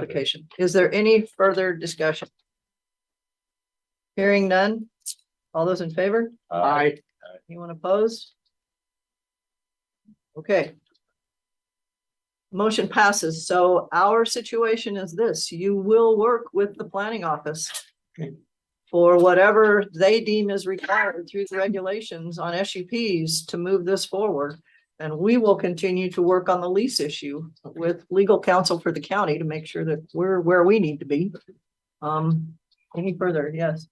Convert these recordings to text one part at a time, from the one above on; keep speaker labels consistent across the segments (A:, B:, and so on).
A: application. Is there any further discussion? Hearing none? All those in favor?
B: Uh,
C: Aye.
A: Anyone opposed? Okay. Motion passes. So our situation is this, you will work with the planning office for whatever they deem is required through the regulations on SUPs to move this forward. And we will continue to work on the lease issue with legal counsel for the county to make sure that we're where we need to be. Um, any further? Yes.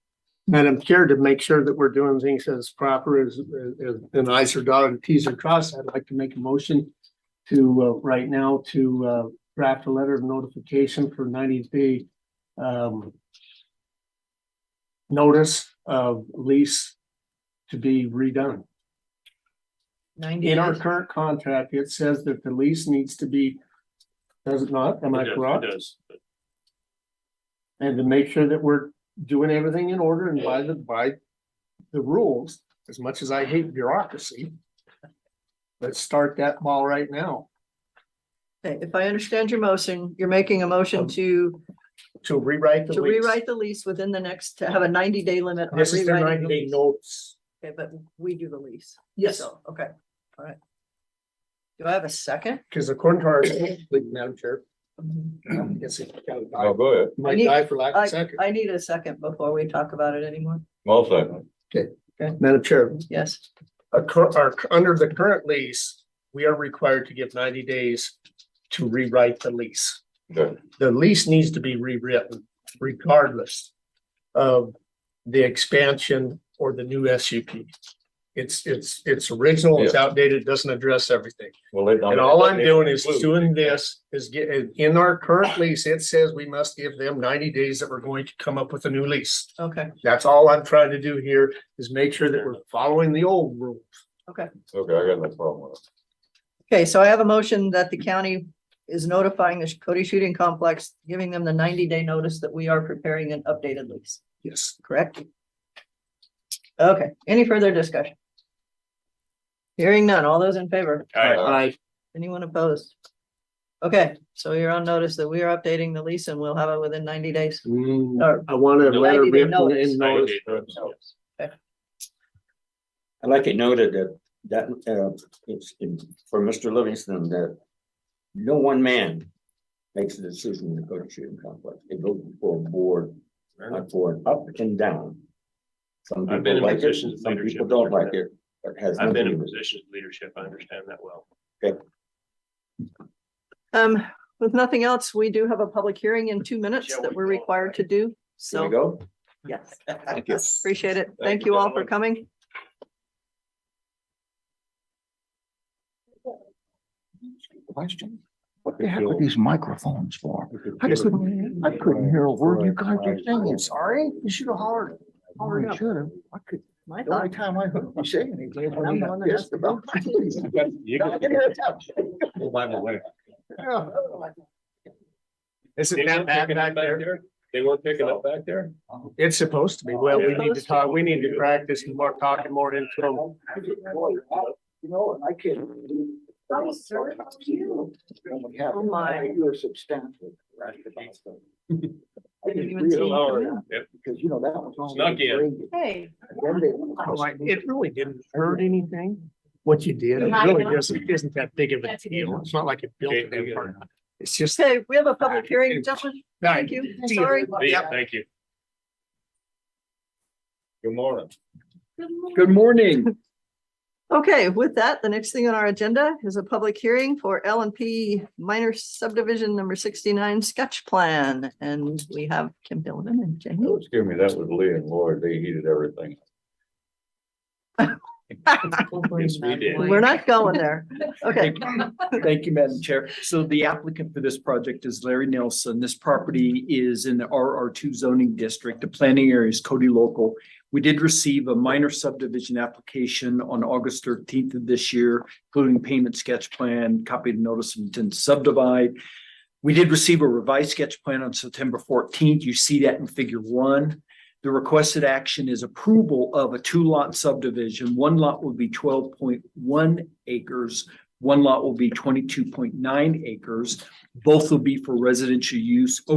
C: Madam Chair, to make sure that we're doing things as proper as, as, and I's are dotted, T's are crossed, I'd like to make a motion to, uh, right now, to, uh, draft a letter of notification for ninety day, um, notice of lease to be redone.
A: Ninety.
C: In our
A: days.
C: current contract, it says that the lease needs to be, does it not? Am I
B: It does, it
C: correct?
B: does.
C: And to make sure that we're doing everything in order and by the, by the rules, as much as I hate bureaucracy. Let's start that ball right now
A: Okay, if I understand your motion, you're making a motion
C: Um,
A: to,
C: to rewrite the
A: to
C: lease.
A: rewrite the lease within the next, to have a ninety day limit. on
C: This is their
A: rewriting
C: ninety
A: the
C: day
A: lease.
C: notes.
A: Okay, but we do the lease.
C: Yes.
A: So, Okay, all right. Do I have a second?
C: Because according to our, Madam Chair, I guess it kind of
D: Oh,
C: died-
D: go ahead.
C: might die for lack of a second.
A: I need a second before we talk about it anymore.
D: I'll second.
C: Madam Chair,
A: Yes,
C: a cur- our, under the current lease, we are required to give ninety days to rewrite the lease.
D: Good.
C: The lease needs to be rewritten regardless of the expansion or the new SUP. It's, it's, it's original, it's outdated, it doesn't address everything.
D: Well, it-
C: And all I'm doing is doing this, is get, in our current lease, it says we must give them ninety days that we're going to come up with a new lease.
A: okay,
C: That's all I'm trying to do here is make sure that we're following the old rule.
D: Okay, I got no problem with
A: okay, so I have a motion that the county is notifying the Cody Shooting Complex, giving them the ninety day notice that we are preparing an updated lease,
C: Yes.
A: correct? Okay, any further discussion? Hearing none, all those in favor?
D: Aye.
C: Aye.
A: Anyone opposed? Okay, so you're on notice that we are updating the lease and we'll have it within ninety days.
C: Mm.
A: Or-
C: I want to let her
A: Ninety-day
C: be in
A: notice.
C: notice.
E: I like it noted that, that, uh, it's, in- for Mr. Livingston, that no one man makes a decision in the Cody shooting complex. It goes before a board, not for an up and down. Some
B: I've been
E: people
B: in
E: like it,
B: positions of
E: some
B: leadership.
E: people don't like it, but has.
B: I've been
E: nothing
B: in
E: to do-
B: positions of leadership. I understand that well.
A: Um, with nothing else, we do have a public hearing in two minutes
B: Shall
A: that
B: we
A: we're
B: go?
A: required to do.
E: Here we
A: So,
E: go.
A: yes,
D: it. Yes.
A: appreciate it. Thank
D: you,
A: you all for
D: gentlemen.
A: coming.
F: question. What the heck are these microphones for? I couldn't, I couldn't hear a word you guys were saying. Sorry, you should have hollered. Hollered out. Should have. I could,
A: My
F: the only
A: thought,
F: time I heard you say anything.
C: Oh,
F: was when
A: I'm the
F: you
A: one that
F: asked about my lease. Now I can hear it out. Yeah.
C: Isn't that back back there?
B: They weren't picking up back there?
C: It's supposed to be. Well, we
B: Yeah.
C: need to talk, we need to practice and more talking more into them.
F: You know, I can.
A: Oh, sir, how are you? Oh, my.
F: You're substantial. right, about stuff. I
A: Didn't
F: didn't
A: even see you
F: realize
A: come
F: that,
A: in.
B: Yep.
F: Because, you know, that was. only
B: Snuck in.
F: graded.
A: Hey,
F: Then they-
A: Oh,
C: It really didn't hurt anything, what you did. It really doesn't, isn't that big of a deal. It's not like it built
B: Okay,
C: that
B: we
C: part. It's just.
A: okay, we have a public hearing, gentlemen. Thank you.
C: See
A: Sorry.
B: Yeah, thank you.
D: Good morning.
F: Good morning.
A: Okay, with that, the next thing on our agenda is a public hearing for L and P minor subdivision number sixty-nine sketch plan. And we have Kim Billiman and Jamie.
D: Oh, Excuse me, that was Lee and Lloyd. They heated everything.
B: Yes, we did.
A: We're not going there. Okay,
G: Thank you, Madam Chair. So the applicant for this project is Larry Nelson. This property is in the RR two zoning district. The planning area is Cody Local. We did receive a minor subdivision application on August thirteenth of this year, including payment sketch plan, copy of notice of intent to subdivide. We did receive a revised sketch plan on September fourteenth. You see that in figure one. The requested action is approval of a two lot subdivision. One lot would be twelve point one acres One lot will be twenty-two point nine acres. Both will be for residential use